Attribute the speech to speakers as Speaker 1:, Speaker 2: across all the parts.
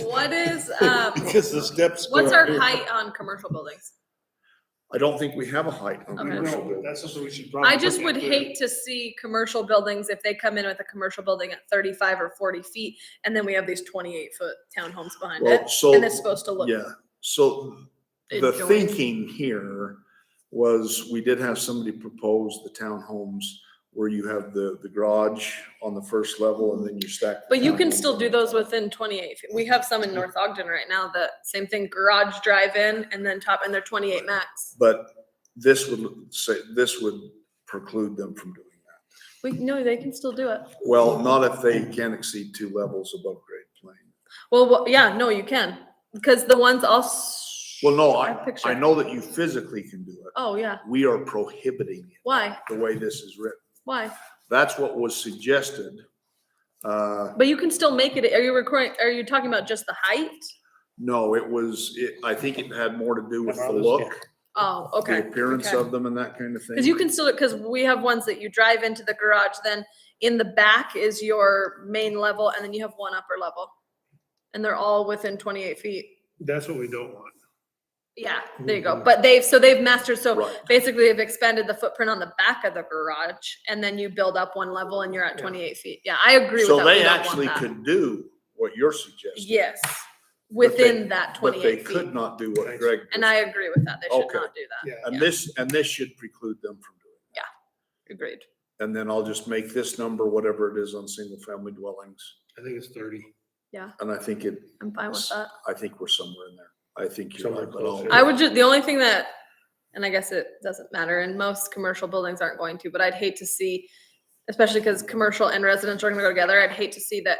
Speaker 1: What is, um,
Speaker 2: Because the steps. go
Speaker 1: what's our
Speaker 2: here.
Speaker 1: height on commercial buildings?
Speaker 2: I don't think we have a height on
Speaker 1: Okay.
Speaker 2: commercial
Speaker 3: No,
Speaker 2: buildings.
Speaker 3: that's something we should probably.
Speaker 1: I just
Speaker 3: look
Speaker 1: would
Speaker 3: at.
Speaker 1: hate to see commercial buildings, if they come in with a commercial building at thirty-five or forty feet, and then we have these twenty-eight foot townhomes behind
Speaker 2: Well,
Speaker 1: it,
Speaker 2: so,
Speaker 1: and it's supposed to look.
Speaker 2: yeah, so the
Speaker 1: adjoined.
Speaker 2: thinking here was we did have somebody propose the townhomes where you have the, the garage on the first level and then you stack. the
Speaker 1: But you can
Speaker 2: townhomes
Speaker 1: still
Speaker 2: on
Speaker 1: do
Speaker 2: top.
Speaker 1: those within twenty-eight. feet. We have some in North Ogden right now, that same thing, garage drive-in and then top, and they're twenty-eight max.
Speaker 2: But this would say, this would preclude them from doing that.
Speaker 1: We, no, they can still do it.
Speaker 2: Well, not if they can exceed two levels above grade plane.
Speaker 1: Well, wha- yeah, no, you can, because the ones all. s-
Speaker 2: Well, no,
Speaker 1: I
Speaker 2: I,
Speaker 1: picture-
Speaker 2: I know that you physically can do it.
Speaker 1: Oh, yeah.
Speaker 2: We are prohibiting it
Speaker 1: Why?
Speaker 2: the way this is written.
Speaker 1: Why?
Speaker 2: That's what was suggested. Uh,
Speaker 1: But you can still make it, are you recording, are you talking about just the height?
Speaker 2: no, it was, it, I think it had more to do with the
Speaker 3: About this,
Speaker 2: look,
Speaker 1: Oh,
Speaker 2: the
Speaker 1: okay.
Speaker 2: appearance
Speaker 1: okay.
Speaker 2: of them and that kind of
Speaker 1: Cause you
Speaker 2: thing.
Speaker 1: can still, cause we have ones that you drive into the garage, then in the back is your main level and then you have one upper level. And they're all within twenty-eight feet.
Speaker 3: That's what we don't want.
Speaker 1: Yeah, there you go. But they've, so they've mastered, so
Speaker 2: Mm-hmm. Right,
Speaker 1: basically they've expanded the footprint on the back of the garage and then you build up one level and you're at
Speaker 3: Yeah.
Speaker 1: twenty-eight feet. Yeah, I agree with that.
Speaker 2: so
Speaker 1: We
Speaker 2: they
Speaker 1: don't want
Speaker 2: actually
Speaker 1: that.
Speaker 2: could do what you're suggesting,
Speaker 1: Yes,
Speaker 2: they-
Speaker 1: within that
Speaker 2: but they
Speaker 1: twenty-eight
Speaker 2: could
Speaker 1: feet.
Speaker 2: not do what
Speaker 3: Thanks.
Speaker 2: Greg.
Speaker 1: And I agree with that. They should
Speaker 2: Okay.
Speaker 1: not do that.
Speaker 3: Yeah,
Speaker 2: And
Speaker 1: yeah.
Speaker 2: this, and this should preclude them from doing. it.
Speaker 1: Agreed.
Speaker 2: And then I'll just make this number whatever it is on single family dwellings.
Speaker 3: I think it's thirty.
Speaker 2: And I think it,
Speaker 1: I'm fine with that.
Speaker 2: I think we're somewhere in there. I think you're
Speaker 3: Somewhere
Speaker 2: right, but I'll-
Speaker 3: closer.
Speaker 1: I would just, the only thing that, and I guess it doesn't matter, and most commercial buildings aren't going to, but I'd hate to see, especially because commercial and residential are gonna go together, I'd hate to see that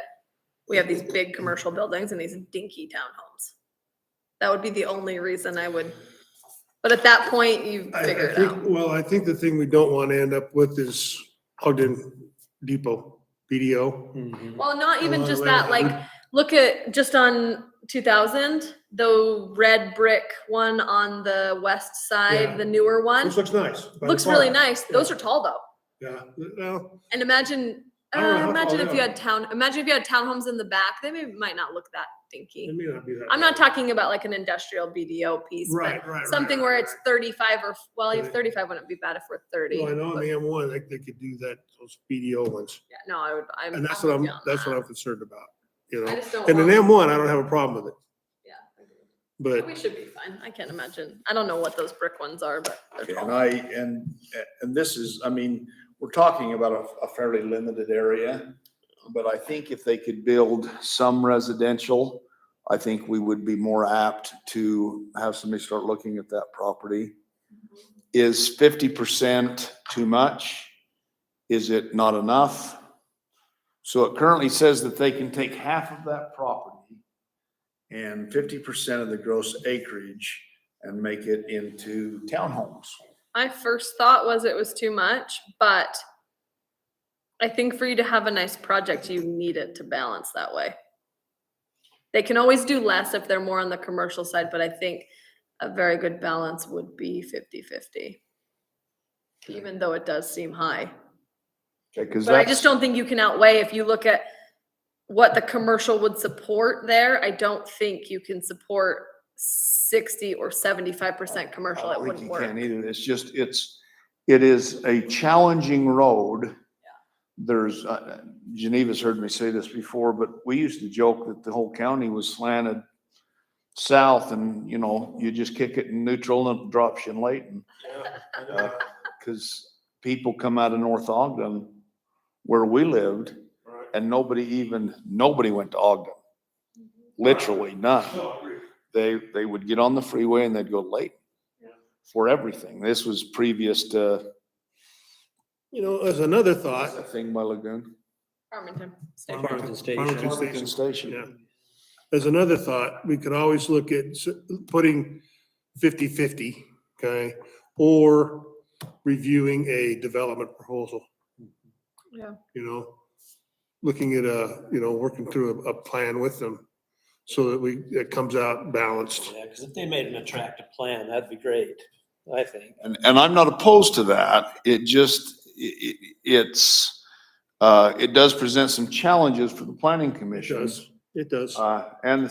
Speaker 1: we have these big commercial buildings and these dinky townhomes. That would be the only reason I would, but at that point, you
Speaker 3: I- I
Speaker 1: figure it
Speaker 3: think-
Speaker 1: out.
Speaker 3: Well, I think the thing we don't want to end up with is Ogden Depot, BDO.
Speaker 1: Well, not even
Speaker 3: Along
Speaker 1: just
Speaker 3: the
Speaker 1: that,
Speaker 3: way.
Speaker 1: like, look at, just on two thousand, the red brick one on the west
Speaker 3: Yeah.
Speaker 1: side, the newer one,
Speaker 3: This looks nice. by the
Speaker 1: looks really
Speaker 3: park.
Speaker 1: nice. Those are tall though.
Speaker 3: Yeah, well,
Speaker 1: And imagine,
Speaker 3: I don't know Oh,
Speaker 1: uh,
Speaker 3: how
Speaker 1: imagine
Speaker 3: tall
Speaker 1: if
Speaker 3: they
Speaker 1: you
Speaker 3: are.
Speaker 1: had town, imagine if you had townhomes in the back, they may, might not look that
Speaker 3: it
Speaker 1: dinky.
Speaker 3: may not be that.
Speaker 1: I'm not
Speaker 3: bad.
Speaker 1: talking about like an industrial BDO piece,
Speaker 3: Right,
Speaker 1: but
Speaker 3: right. right,
Speaker 1: something
Speaker 3: right,
Speaker 1: where
Speaker 3: right.
Speaker 1: it's thirty-five or, well, if
Speaker 3: Right.
Speaker 1: thirty-five wouldn't be bad if we're thirty.
Speaker 3: Well, I know, on
Speaker 1: but
Speaker 3: the M one, like, they could do that, those BDO ones.
Speaker 1: yeah, No, I would, I'm.
Speaker 3: And that's what I'm,
Speaker 1: with you on
Speaker 3: that's
Speaker 1: that.
Speaker 3: what I'm concerned about, you
Speaker 1: I
Speaker 3: know?
Speaker 1: just don't
Speaker 3: And an
Speaker 1: want-
Speaker 3: M one, I don't have a problem with it,
Speaker 1: Yeah,
Speaker 3: but
Speaker 1: We should be fine. I can't imagine. I don't know what those brick ones are, but
Speaker 2: Okay,
Speaker 1: they're
Speaker 2: And
Speaker 1: tall.
Speaker 2: I, and, and this is, I mean, we're talking about a, a fairly limited area. But I think if they could build some residential, I think we would be more apt to have somebody start looking at that property. Is fifty percent too much? Is it not enough? So it currently says that they can take half of that property and fifty percent of the gross acreage and make it into townhomes.
Speaker 1: My first thought was it was too much, but I think for you to have a nice project, you need it to balance that way. They can always do less if they're more on the commercial side, but I think a very good balance would be 50 50. Even though it does seem high.
Speaker 2: Okay, because
Speaker 1: But I
Speaker 2: that's.
Speaker 1: just don't think you can outweigh, if you look at what the commercial would support there, I don't think you can support 60 or 75%
Speaker 2: I
Speaker 1: commercial. It
Speaker 2: don't think
Speaker 1: wouldn't
Speaker 2: you
Speaker 1: work.
Speaker 2: Uh, can e- either. It's just, it's, it is a challenging road. There's, uh, Geneva's heard me say this before, but we used to joke that the whole county was slanted south and, you know, you just kick it in neutral and it drops you in Layton. Because people come out of North Ogden where we lived and nobody even, nobody went to Ogden.
Speaker 1: Mm-hmm.
Speaker 2: Literally none they, they would get on the freeway and they'd go late
Speaker 1: Yeah.
Speaker 2: for everything. This was previous to
Speaker 3: You know, as another thought.
Speaker 2: thing by Lagoon.
Speaker 1: Farmington. State Farm.
Speaker 4: Farmington Station.
Speaker 3: Farmington
Speaker 2: Farmington
Speaker 3: Yeah.
Speaker 2: Station.
Speaker 3: As another thought, we could always look at s- putting 50/50, okay? Or reviewing a development proposal.
Speaker 1: Yeah.
Speaker 3: You know, looking at a, you know, working through a, a plan with them so that we, it comes out balanced.
Speaker 4: Yeah, because if they made an attractive plan, that'd be great, I think.
Speaker 2: And, and I'm not opposed to that. It just, it, it's, uh, it does present some challenges for the planning
Speaker 3: It
Speaker 2: commission.
Speaker 3: does, it does.
Speaker 2: Uh, and the